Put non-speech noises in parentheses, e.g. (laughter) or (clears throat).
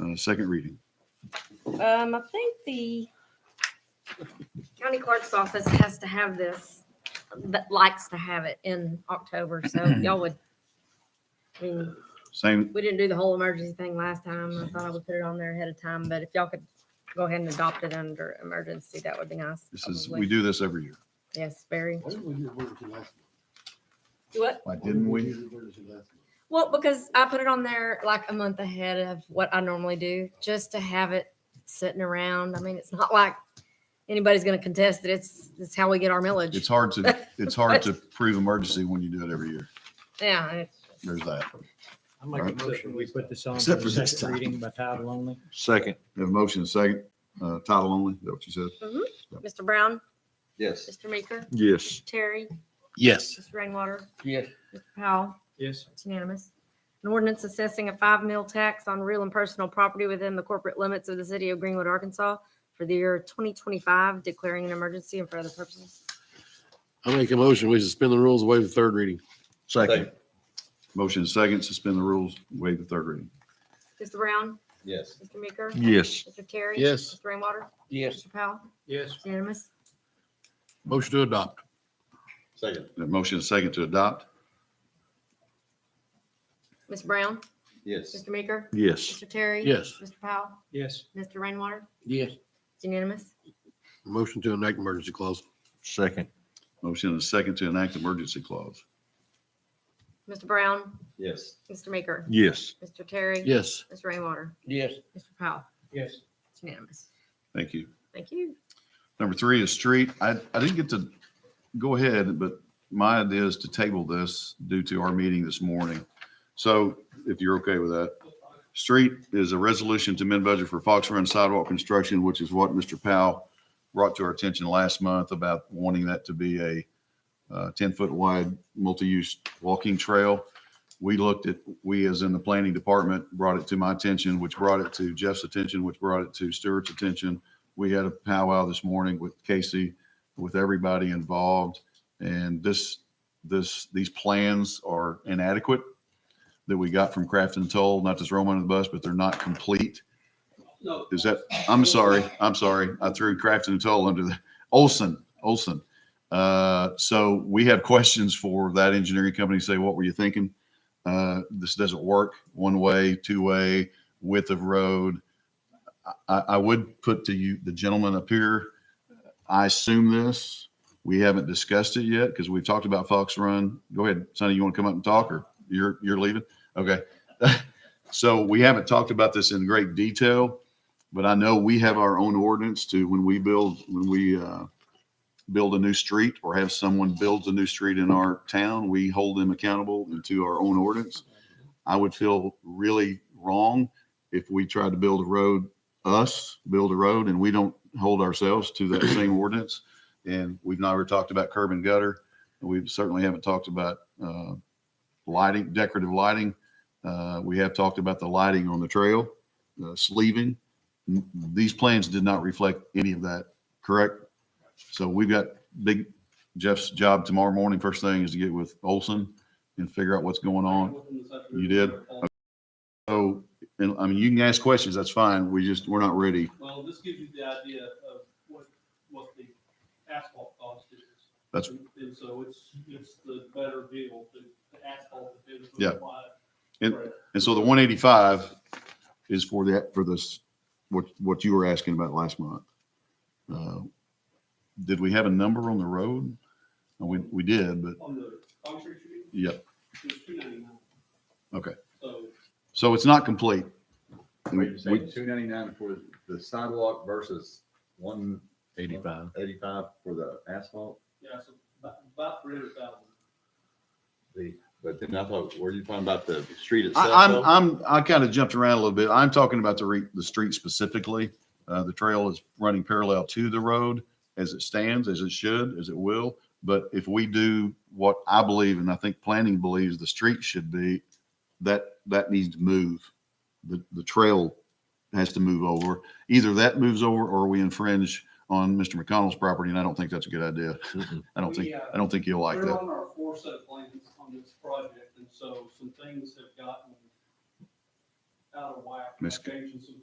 uh, second reading. Um, I think the county clerk's office has to have this, that likes to have it in October, (clears throat) so y'all would. I mean, Same, we didn't do the whole emergency thing last time. I thought I would put it on there ahead of time, but if y'all could go ahead and adopt it under emergency, that would be nice. this is, probably. we do this every year. Yes, very. Why didn't we do emergency last month? What? Why Why didn't we? do emergency last month? Well, because I put it on there like a month ahead of what I normally do, just to have it sitting around. I mean, it's not like anybody's gonna contest it. It's, it's how we get our millage. It's hard to, it's hard to prove emergency when you do it every year. Yeah, and it's- There's that. I make Alright. a motion, we put this on for Except the for this second time. reading by title only. Second. We have a motion, and a second, uh, title only, is that what you said? Mr. Brown, Yes. Mr. Maker, Yes. Terry, Yes. Mr. Rainwater, Yes. Mr. Powell, Yes. it's unanimous. An ordinance assessing a five mil tax on real and personal property within the corporate limits of the city of Greenwood, Arkansas for the year twenty twenty-five, declaring an emergency and for other purposes. I make a motion, we suspend the rules, waive the third reading. Second. Motion, and a second, suspend the rules, waive the third reading. Mr. Brown, Yes. Mr. Maker, Yes. Mr. Terry. Yes. Mr. Rainwater, Yes. Mr. Powell, Yes. it's unanimous. Motion to adopt. Second. We have A motion, and a second to adopt? Ms. Brown, Yes. Mr. Maker, Yes. Mr. Terry. Yes. Mr. Powell, Yes. Mr. Rainwater, Yes. it's unanimous. Motion to enact emergency clause. Second. Motion, and a second to enact emergency clause. Mr. Brown, Yes. Mr. Maker, Yes. Mr. Terry. Yes. Mr. Rainwater, Yes. Mr. Powell, Yes. it's unanimous. Thank you. Thank you. Number three is street. I, I didn't get to go ahead, but my idea is to table this due to our meeting this morning. So if you're okay with that. Street is a resolution to amend budget for Fox Run sidewalk construction, which is what Mr. Powell brought to our attention last month about wanting that to be a uh, 10-foot wide multi-use walking trail. We looked at, we as in the planning department, brought it to my attention, which brought it to Jeff's attention, which brought it to Stewart's attention. We had a powwow this morning with Casey, with everybody involved. And this, this, these plans are inadequate that we got from Craft and Toll, not to throw them under the bus, but they're not complete. Is that, I'm sorry, I'm sorry. I threw Craft and Toll under the, Olson, Olson. Uh, so we have questions for that engineering company, say, what were you thinking? Uh, this doesn't work, one way, two way, width of road. I, I would put to you, the gentleman up here, I assume this, we haven't discussed it yet because we've talked about Fox Run. Go ahead, Sonny, you want to come up and talk or you're, you're leaving? Okay. (laughs) So we haven't talked about this in great detail, but I know we have our own ordinance to when we build, when we, uh, build a new street or have someone builds a new street in our town, we hold them accountable and to our own ordinance. I would feel really wrong if we tried to build a road us build a road and we don't hold ourselves to that same ordinance. And we've never talked about curb and gutter. We certainly haven't talked about uh, lighting, decorative lighting. Uh, We have talked about the lighting on the trail, uh, sleeving. N- These plans did not reflect any of that, correct? So we've got big, Jeff's job tomorrow morning, first thing is to get with Olson and figure out what's going on. You did? So, and I mean, you can ask questions, that's fine. We just, we're not ready Well, this gives you the idea of what, what the asphalt cost is. That's- And and so it's, it's the better deal to to asphalt the bid. Yeah. And- And And so the one eighty-five is for that, for this, what, what you were asking about last month. Uh, Did we have a number on the road? No, We, we did, but On the concrete street, yeah, it's two ninety-nine. Okay. So so it's not complete. Wait, you're We- saying two ninety-nine for the sidewalk versus one Eighty-five. eighty-five for the asphalt? Yeah, so about, about three hundred thousand. The, but then I thought, were you talking about the street itself? I, I'm, though? I'm, I kind of jumped around a little bit. I'm talking about the re, the street specifically. Uh, the trail is running parallel to the road as it stands, as it should, as it will. But if we do what I believe, and I think planning believes the street should be, that, that needs to move. The, the trail has to move over. Either that moves over or we infringe on Mr. McConnell's property, and I don't think that's a good idea. Mm-mm. I don't think, We, uh, I don't think he'll like We're that. on our fourth set of plans on this project, and so some things have gotten out of whack. Miss- Changing some